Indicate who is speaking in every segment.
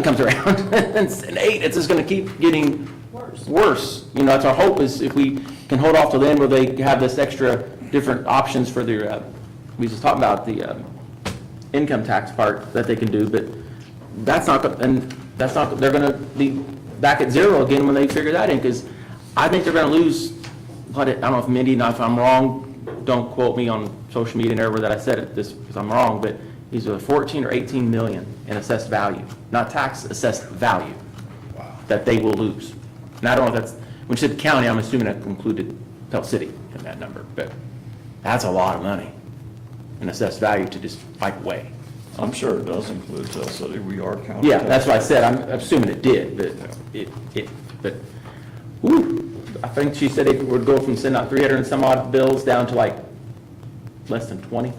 Speaker 1: comes around, and it's an eight, it's just gonna keep getting worse. You know, that's our hope is if we can hold off till the end where they have this extra different options for their, uh, we just talked about the, um, income tax part that they can do, but that's not, go- and that's not, they're gonna be back at zero again when they figure that in, because I think they're gonna lose, what it- I don't know if Mindy, now if I'm wrong, don't quote me on social media and everywhere that I said it, this, because I'm wrong, but these are 14 or 18 million in assessed value, not tax, assessed value, that they will lose. And I don't know if that's, when you said county, I'm assuming that included Pell City in that number, but that's a lot of money in assessed value to just wipe away.
Speaker 2: I'm sure it does include Tell City, we are counting.
Speaker 1: Yeah, that's what I said, I'm assuming it did, but it, it, but, whew, I think she said it would go from sending out three hundred and some odd bills down to like less than twenty.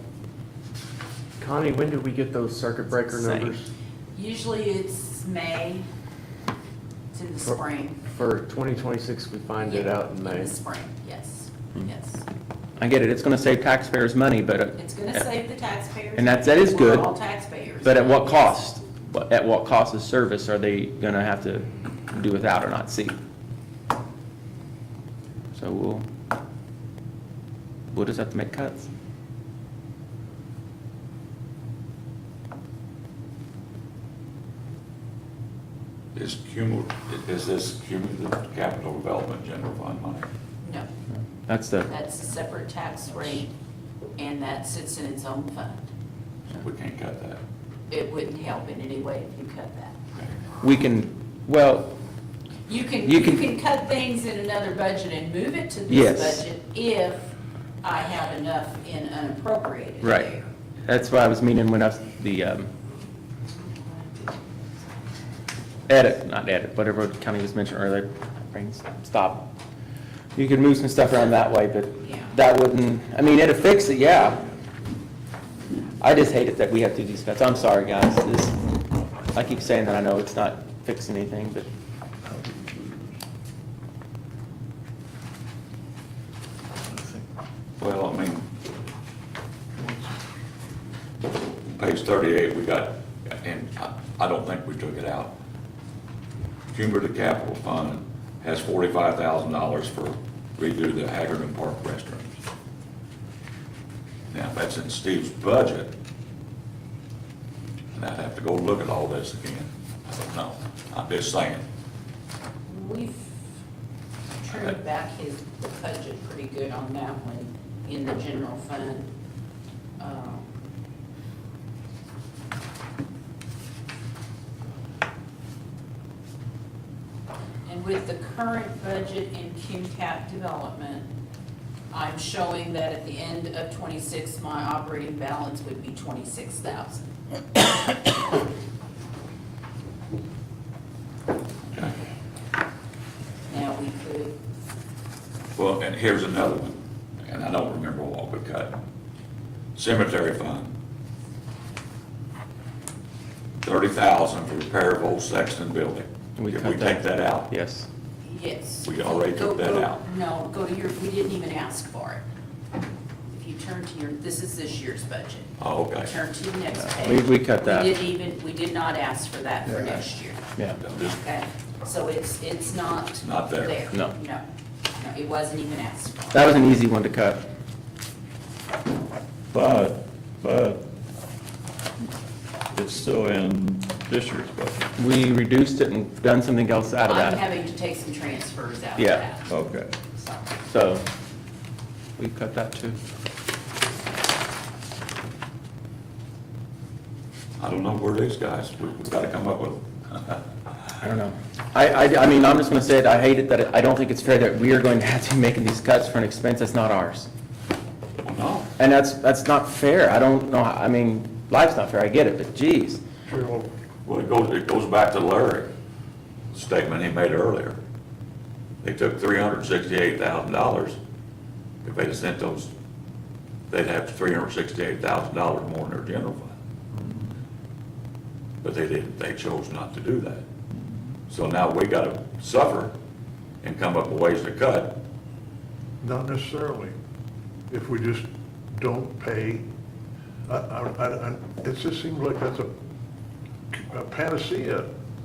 Speaker 3: Connie, when did we get those circuit breaker
Speaker 1: Same.
Speaker 3: numbers
Speaker 4: Usually it's May to the
Speaker 3: For-
Speaker 4: spring.
Speaker 3: for 2026? We find it
Speaker 4: Yeah,
Speaker 3: out in May.
Speaker 4: the spring, yes,
Speaker 1: Hmm.
Speaker 4: yes.
Speaker 1: I get it, it's gonna save taxpayers money, but, at-
Speaker 4: It's gonna save the taxpayers.
Speaker 1: And that's- that is
Speaker 4: We're
Speaker 1: good,
Speaker 4: all taxpayers.
Speaker 1: but at what cost? What- At what cost of service are they gonna have to do without or not see? So we'll, we'll just have to make cuts.
Speaker 5: Is cumulative, is this cumulative capital development general fund money?
Speaker 4: No,
Speaker 1: That's the,
Speaker 4: that's a separate tax rate, and that sits in its own fund.
Speaker 5: We can't cut that.
Speaker 4: It wouldn't help in any way if you cut that.
Speaker 1: we can, well,
Speaker 4: You can,
Speaker 1: You
Speaker 4: you
Speaker 1: can-
Speaker 4: can cut things in another budget and move it to
Speaker 1: Yes.
Speaker 4: this budget if I have enough in unappropriated
Speaker 1: Right.
Speaker 4: there.
Speaker 1: That's what I was meaning when I was, the um, edit, not edit, whatever County was mentioned earlier, brains stop. You could move some stuff around that way, but
Speaker 4: Yeah.
Speaker 1: that wouldn't, I mean, it'd fix it, yeah. I just hate it that we have to do these cuts. I'm sorry, guys. This, I keep saying that, I know it's not fixing anything, but
Speaker 5: Well, I mean, page thirty-eight, we got, and I, I don't think we took it out. Cumulative capital fund has forty-five thousand dollars for redo the Hagerton Park restrooms. Now, that's in Steve's budget. And I'd have to go look at all this again. I don't know. I'm just saying.
Speaker 4: We've trimmed back his budget pretty good on that one in the general fund. Um, And with the current budget in QCAP development, I'm showing that at the end of twenty-six, my operating balance would be twenty-six thousand. Now, we could
Speaker 5: Well, and here's another one, and I don't remember what we cut. Cemetery fund. Thirty thousand for repair of old Sexton building.
Speaker 1: We
Speaker 5: Did
Speaker 1: cut
Speaker 5: we take
Speaker 1: that.
Speaker 5: that out?
Speaker 1: yes.
Speaker 4: Yes.
Speaker 5: We already
Speaker 4: Go-
Speaker 5: took that
Speaker 4: go-
Speaker 5: out.
Speaker 4: No, go to your, we didn't even ask for it. If you turn to your, this is this year's budget.
Speaker 5: Oh, okay.
Speaker 4: Turn to the next
Speaker 1: we-
Speaker 4: page.
Speaker 1: we cut that.
Speaker 4: We didn't even, we did not ask for that for next year,
Speaker 1: Yeah.
Speaker 5: I'm just-
Speaker 4: okay? So it's, it's not.
Speaker 5: Not there.
Speaker 1: No.
Speaker 4: No, no, it wasn't even asked for.
Speaker 1: That was an easy one to cut.
Speaker 2: But, but it's still in this year's budget.
Speaker 1: We reduced it and done something else out of
Speaker 4: I'm
Speaker 1: that,
Speaker 4: having to take some transfers out of
Speaker 1: Yeah.
Speaker 4: that.
Speaker 2: Okay.
Speaker 4: So,
Speaker 1: so we cut that too.
Speaker 5: I don't know where these guys, we- we've got to come up with,
Speaker 1: I don't know. I, I, I mean, I'm just gonna say it, I hate it that, it- I don't think it's fair that we are going to have to be making these cuts for an expense that's not ours.
Speaker 5: well, no,
Speaker 1: And that's, that's not fair, I don't know, how- I mean, life's not fair, I get it, but geez.
Speaker 5: well, it goes, it goes back to Larry, the statement he made earlier. They took three hundred and sixty-eight thousand dollars. If they'd have sent those, they'd have three hundred and sixty-eight thousand dollars more in their general fund. But they didn't, they chose not to do that. So now we gotta suffer and come up with ways to cut.
Speaker 6: Not necessarily. If we just don't pay, I, I, I, I- it just seems like that's a a panacea.